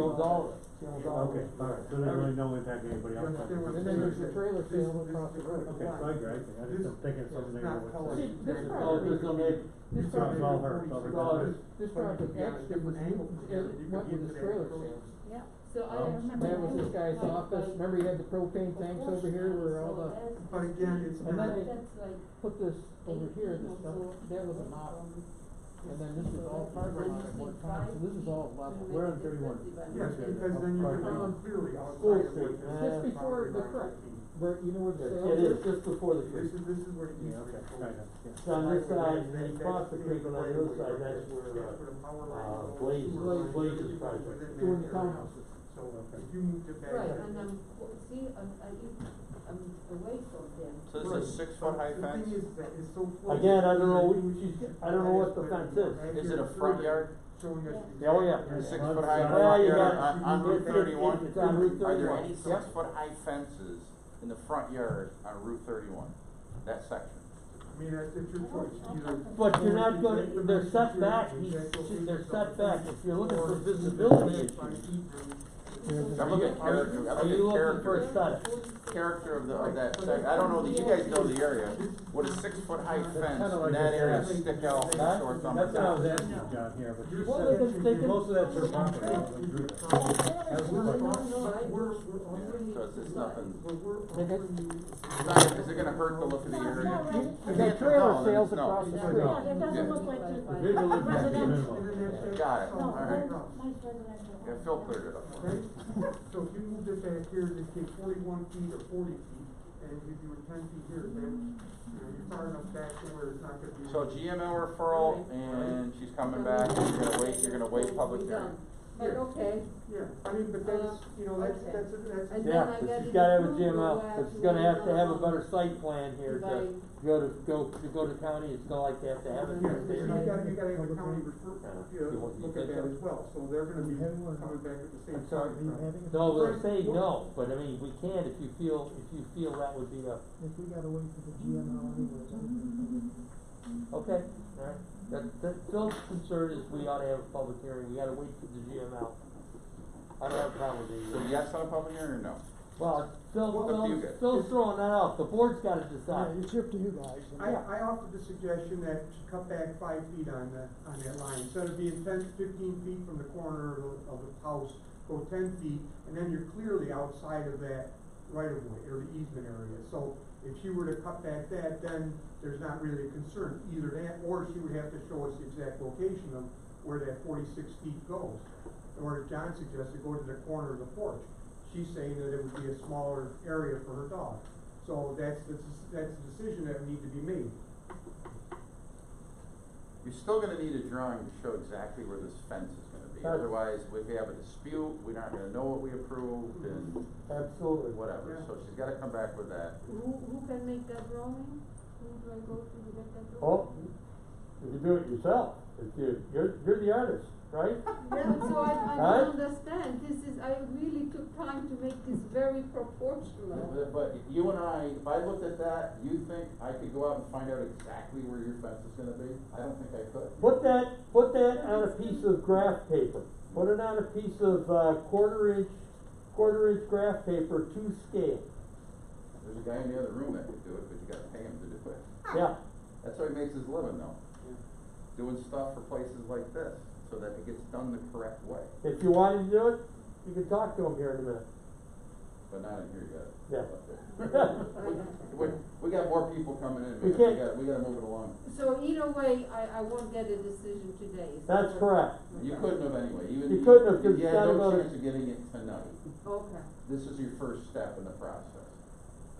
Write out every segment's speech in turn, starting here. was all, it was all. Okay, all right, so there's really no impact to anybody else. There was- And then there's the trailer sale across the road. Okay, so I agree, I think- I just am thinking something This is maybe not with. colored. See, this This is- property. Oh, this on This It's all- it's property. all her, it's all her. uh, This property actually was, it went with the trailer sale. Yeah, so I Well, remember. That was this guy's office, remember he had the propane tanks over here where all the, But again, it's And not, then they- That's like put this over here, this stuff, So- that was a model. Um, And then this was all parking lot at one time, so this is all level. Where on thirty-one? yes, because then you Right. can run clearly School Street, outside of what this just property before the line creek, would be. where, you know where the sale It is? is just before the This creek. is, this is where the Yeah, easement okay, goes. right, yeah. It's on this side, and then That's across the creek on the other right-of-way side, right there. that's where, That's where the power line uh, goes. Blaze, Within Blaze's that project. area. Doing the townhouses. So Okay. if you moved it back. Right, there- and I'm, well, see, I'm, I even, I'm away from them. So this is a six foot high The thing fence? is that it's so. uh, again, I don't know, what she's, I don't know what the fence is. Is it a front yard? Showing us. the Oh, yeah. exact- Six Well, foot high it's- Well, front you yard got- on, on Route it's- thirty-one? It's on Route Are there thirty-one, any yep. six foot high fences in the front yard on Route thirty-one, that section? I mean, that's, it's your choice, either. But you're not gonna, they're set back, he's- they're set back, if you're looking for visibility issues. I'm looking at character, I'm Are looking you at looking for character, a study? character of the, of that section, I don't know that you guys know the area. Would a six foot high That's fence kinda in like that this area area. stick out Huh? or something? That's what I was asking you, John, here, but you You're Well, they said, can- they can- most of that's your property. That's We're, what- we're, I- we're offering, Yeah, 'cause it's nothing, we're, we're Okay. offering you. it's not, is it gonna hurt the look of the You area? got No, trailer no, sales no. across the No. street. Yeah, it doesn't look like The the visual impact is residential. minimal. Got it, No, all right. mine- mine's residential. Yeah, Phil cleared it up. for me. Okay, so if you moved it back here, it'd take forty-one feet or forty feet, and if you do it ten feet here, then, you know, you're far enough back to where it's not gonna be. So GML referral, and she's coming back, you're gonna wait, you're gonna wait public hearing. But okay, Yeah, I mean, but that's, you know, that's, Okay. that's, a- that's. a- And then Yeah, I but gotta she's gotta have a do GML, what I cause she's gonna have to have a have better to site plan here by- to go to, go, to go to county, it's gonna like to have to have it. Yeah, in so you there. gotta, you gotta have the county refer, you You know, want- you look at think that so? as well, so they're gonna be Have one. coming back at the same I'm sorry, time. right? No, we're saying no, but I mean, we can if you feel, if you feel that would be a, If we gotta wait for the GML anyways, I think. okay, alright. That, that, Phil's concern is we ought to have a public hearing, we gotta wait for the GML. I don't have a problem with So it. yes on a public hearing or no? Well, Phil, Well, up to you Phil, guys. Phil's throwing that out, the board's gotta Yeah, decide. it's up to you guys. I, I offered the suggestion that you cut back five feet on the, on that line, instead of being ten, fifteen feet from the corner of the, of the house, go ten feet, and then you're clearly outside of that right of way, or the easement area, so if she were to cut back that, then there's not really a concern, either that, or she would have to show us the exact location of where that forty-six feet goes. Or as John suggested, go to the corner of the porch, she's saying that it would be a smaller area for her dog. So that's the, that's the decision that would need to be made. You're still gonna need a drawing to show exactly where this fence is gonna be, otherwise if we have a dispute, we're not gonna know what we approved and Absolutely. whatever, so she's gotta come back with that. Who, who can make that drawing? Who do I go to to make that drawing? Well, Oh. you can do it yourself, if you, you're, you're the artist, right? Yeah, so I, I Huh? don't understand, this is, I really took time to make this very proportional. But- But you and I, if I looked at that, you think I could go out and find out exactly where your fence is gonna be? I don't think I could. Put that, put that on a piece of graph paper, put it on a piece of, uh, quarter inch, quarter inch graph paper to scale, There's a guy in the other room that could do it, but you gotta pay him to do it. yeah. That's how he makes his living though. Doing stuff for places like this, so that it gets done the correct way, If you wanted to do it, you can talk to him here in a minute. but not in here yet. Yeah. We, we got more people coming in, man, we We can't- gotta, we gotta move it along. So either way, I, I won't get a decision today. is that That's what- correct. You couldn't have anyway, even. You couldn't have, 'cause You had it's gotta no go to- chance of getting it tonight. Okay. This is your first step in the process.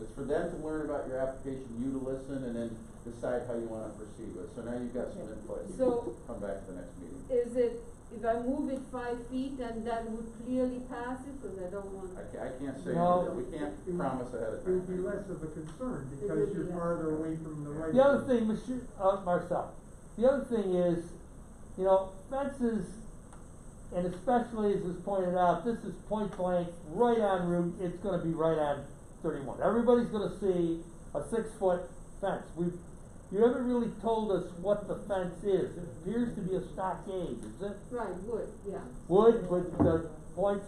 It's for them to learn about your application, you to listen, and then decide how you wanna proceed with. it. So now you've got some Okay. input, you So- can come back to the next meeting. Is it, if I move it five feet and that would clearly pass it, cause I don't want, I ca- I can't say, No. Mm-hmm. anything. we can't promise ahead of It would be time. less of a concern because you're farther away from the right. The other thing, Monsieur, uh, Marcel, the other thing is, you know, fences, and especially as was pointed out, this is point blank, right on route, it's gonna be right on thirty-one. Everybody's gonna see a six-foot fence. We've, you haven't really told us what the fence is. It appears to be a stockade, is it? right, wood, yeah. Wood with the point